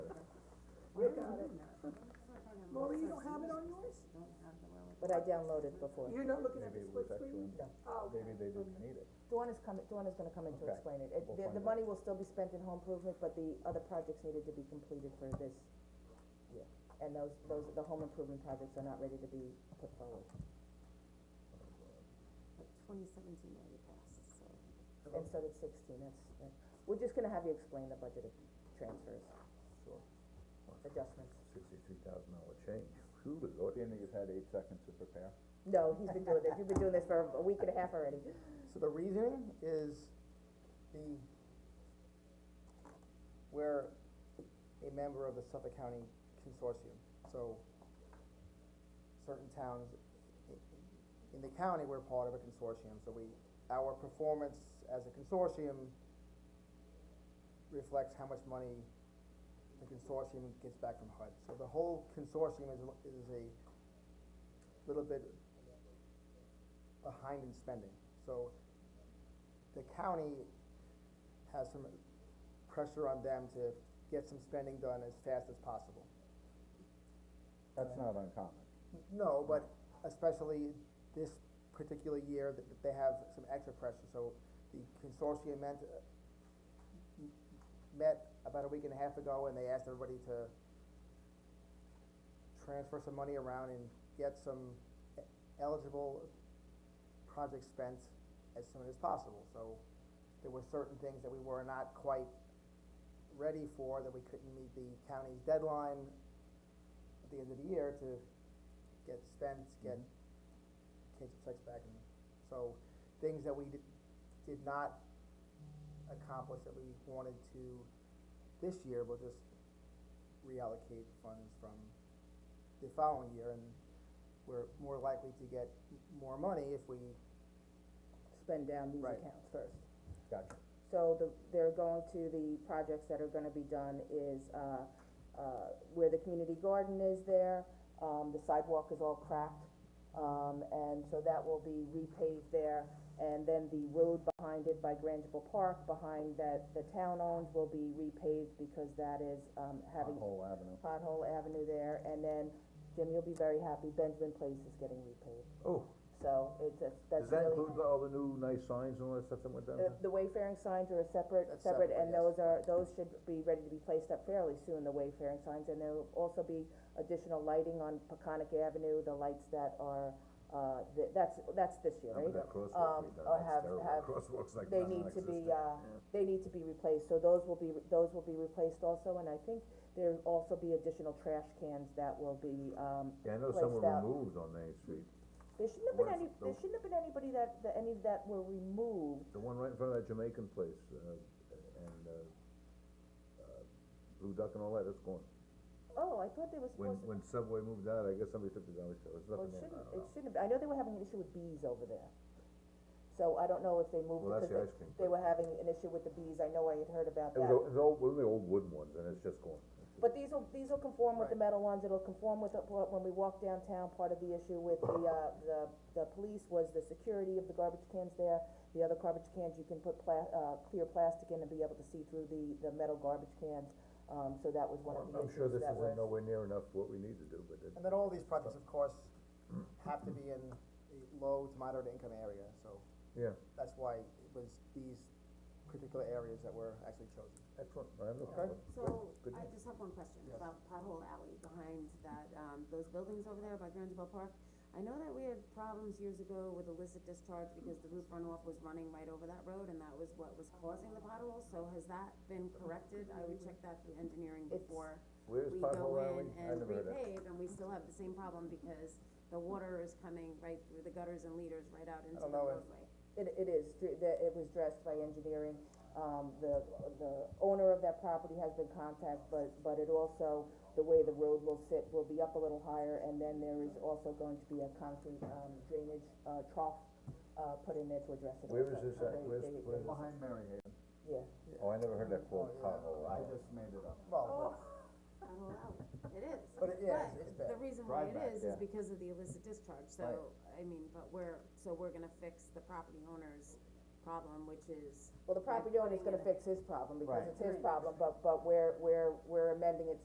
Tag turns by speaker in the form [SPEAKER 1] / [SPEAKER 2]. [SPEAKER 1] But I downloaded before.
[SPEAKER 2] You're not looking at the
[SPEAKER 3] Maybe it was
[SPEAKER 2] split screen?
[SPEAKER 3] actually-
[SPEAKER 2] Oh, okay.
[SPEAKER 3] Maybe they didn't need it.
[SPEAKER 1] Dawn is coming, Dawn is gonna come in to
[SPEAKER 3] Okay.
[SPEAKER 1] explain it. It-
[SPEAKER 3] We'll
[SPEAKER 1] The,
[SPEAKER 3] find
[SPEAKER 1] the
[SPEAKER 3] out.
[SPEAKER 1] money will still be spent in home improvement, but the other projects needed to be completed for this year. And those, those, the home improvement projects are not ready to be put forward.
[SPEAKER 4] Twenty seventeen already passed, so.
[SPEAKER 1] And so did sixteen, that's, that, we're just gonna have you explain the budget transfers,
[SPEAKER 3] Sure.
[SPEAKER 1] adjustments.
[SPEAKER 3] Sixty-three thousand dollar change. Who the Lord? And you've had eight seconds to prepare.
[SPEAKER 1] No, he's been doing this, you've been doing this for a week and a half already.
[SPEAKER 5] So the reasoning is the, we're a member of the Suffolk County Consortium, so certain towns i- i- in the county, we're part of a consortium, so we, our performance as a consortium reflects how much money the consortium gets back from HUD. So the whole consortium is, a- is a little bit behind in spending. So the county has some pressure on them to get some spending done as fast as possible.
[SPEAKER 3] That's not uncommon.
[SPEAKER 5] No, but especially this particular year, that that they have some extra pressure, so the consortium met, met about a week and a half ago, and they asked everybody to transfer some money around and get some eligible projects spent as soon as possible, so there were certain things that we were not quite ready for, that we couldn't meet the county's deadline at the end of the year to get spent, get kids' checks back, and so, things that we did, did not accomplish that we wanted to this year, we'll just reallocate funds from the following year, and we're more likely to get more money if we,
[SPEAKER 1] Spend down these
[SPEAKER 5] Right.
[SPEAKER 1] accounts first.
[SPEAKER 3] Gotcha.
[SPEAKER 1] So the, they're going to, the projects that are gonna be done is, uh, uh, where the community garden is there, um, the sidewalk is all cracked. Um, and so that will be repaved there, and then the road behind it by Grangeville Park, behind that the town owns will be repaved because that is, um, having
[SPEAKER 3] Whole avenue.
[SPEAKER 1] pothole avenue there, and then, Jim, you'll be very happy, Benjamin Place is getting repaved.
[SPEAKER 3] Oh,
[SPEAKER 1] So it's, a- that's really.
[SPEAKER 3] all the new nice signs and all that stuff that went down
[SPEAKER 1] The, the wayfaring signs are a separate,
[SPEAKER 5] That's
[SPEAKER 1] separate,
[SPEAKER 5] separate,
[SPEAKER 1] and
[SPEAKER 5] yes.
[SPEAKER 1] those are, those should be ready to be placed up fairly soon, the wayfaring signs, and there'll also be additional lighting on Peconic Avenue, the lights that are, uh, th- that's, that's this year, right? Um, uh, have- have-
[SPEAKER 3] Crosswalks like
[SPEAKER 1] They need to be, uh, they need to be replaced, so those will be, those will be replaced also, and I think there'll also be additional trash cans that will be, um,
[SPEAKER 3] Yeah, I know
[SPEAKER 1] some were placed out.
[SPEAKER 3] removed on Main Street.
[SPEAKER 1] there shouldn't have been
[SPEAKER 3] Where's
[SPEAKER 1] any,
[SPEAKER 3] the-
[SPEAKER 1] there shouldn't have been anybody that, that, any that were removed,
[SPEAKER 3] The one right in front of that Jamaican place, uh, and, uh, uh, Blue Duck and all that, it's gone.
[SPEAKER 1] oh, I thought they were
[SPEAKER 3] When,
[SPEAKER 1] supposed to.
[SPEAKER 3] when Subway moved out, I guess somebody took the garbage, there was
[SPEAKER 1] Well,
[SPEAKER 3] nothing
[SPEAKER 1] it shouldn't,
[SPEAKER 3] there, I don't
[SPEAKER 1] it
[SPEAKER 3] know.
[SPEAKER 1] shouldn't, I know they were having an issue with bees over there. So I don't know if they moved
[SPEAKER 3] Well,
[SPEAKER 1] because
[SPEAKER 3] that's the ice
[SPEAKER 1] they,
[SPEAKER 3] cream.
[SPEAKER 1] they were having an issue with the bees, I know I had heard about
[SPEAKER 3] It
[SPEAKER 1] that.
[SPEAKER 3] was, o- it was old, one of the old wooden ones, and it's just gone.
[SPEAKER 1] But these will, these will conform with the metal ones, it'll conform with, the- what- when we walk downtown, part of the issue with the, uh, the, the police was the security of the garbage cans there. The other garbage cans, you can put pla- uh, clear plastic in and be able to see through the, the metal garbage cans, um, so that was one of the
[SPEAKER 3] I'm sure
[SPEAKER 1] issues
[SPEAKER 3] this
[SPEAKER 1] that
[SPEAKER 3] isn't
[SPEAKER 1] was.
[SPEAKER 3] nowhere near enough what we need to do, but it,
[SPEAKER 5] and then all these projects, of course, have to be in a low to moderate income area, so
[SPEAKER 3] yeah,
[SPEAKER 5] that's why it was these particular areas that were actually chosen.
[SPEAKER 3] excellent, I have no
[SPEAKER 5] Okay.
[SPEAKER 3] problem.
[SPEAKER 4] So,
[SPEAKER 3] Good
[SPEAKER 4] I
[SPEAKER 3] news.
[SPEAKER 4] just have one question
[SPEAKER 5] Yes.
[SPEAKER 4] about pothole alley behind that, um, those buildings over there by Grandville Park. I know that we had problems years ago with illicit discharge because the roof runoff was running right over that road and that was what was causing the potholes, so has that been corrected? I would check that through engineering
[SPEAKER 1] It's-
[SPEAKER 4] before
[SPEAKER 3] Where's
[SPEAKER 4] we
[SPEAKER 3] pothole
[SPEAKER 4] go
[SPEAKER 3] alley?
[SPEAKER 4] in
[SPEAKER 3] I
[SPEAKER 4] and
[SPEAKER 3] never heard of it.
[SPEAKER 4] repave, and we still have the same problem because the water is coming right through the gutters and leaders right out into the
[SPEAKER 5] don't know if-
[SPEAKER 4] roadway.
[SPEAKER 1] It, it is, dr- the- it was dressed by engineering, um, the, the owner of that property has been contacted, but, but it also, the way the road will sit will be up a little higher, and then there is also going to be a concrete, um, drainage, uh, trough, uh, put in there to address it.
[SPEAKER 3] Where is
[SPEAKER 1] also.
[SPEAKER 3] this
[SPEAKER 1] So
[SPEAKER 3] at?
[SPEAKER 1] they-
[SPEAKER 3] Where's-
[SPEAKER 1] they-
[SPEAKER 3] where is
[SPEAKER 1] they-
[SPEAKER 3] it?
[SPEAKER 6] Behind Mary Ann.
[SPEAKER 1] Yeah,
[SPEAKER 3] Oh, I never heard that called
[SPEAKER 5] Oh, yeah.
[SPEAKER 3] pothole
[SPEAKER 6] I
[SPEAKER 3] alley.
[SPEAKER 6] just made it up.
[SPEAKER 5] Well,
[SPEAKER 4] Pothole alley, it is.
[SPEAKER 5] but, but it, yeah, it's, it's bad.
[SPEAKER 4] The reason why it
[SPEAKER 6] Drive-back,
[SPEAKER 4] is,
[SPEAKER 3] yeah.
[SPEAKER 4] is because of the illicit discharge, so, I mean, but we're, so we're gonna fix the property owner's problem, which is
[SPEAKER 1] well, the property owner's gonna
[SPEAKER 4] putting it-
[SPEAKER 1] fix his problem, because
[SPEAKER 6] Right.
[SPEAKER 1] it's his problem, but, but we're, we're, we're amending it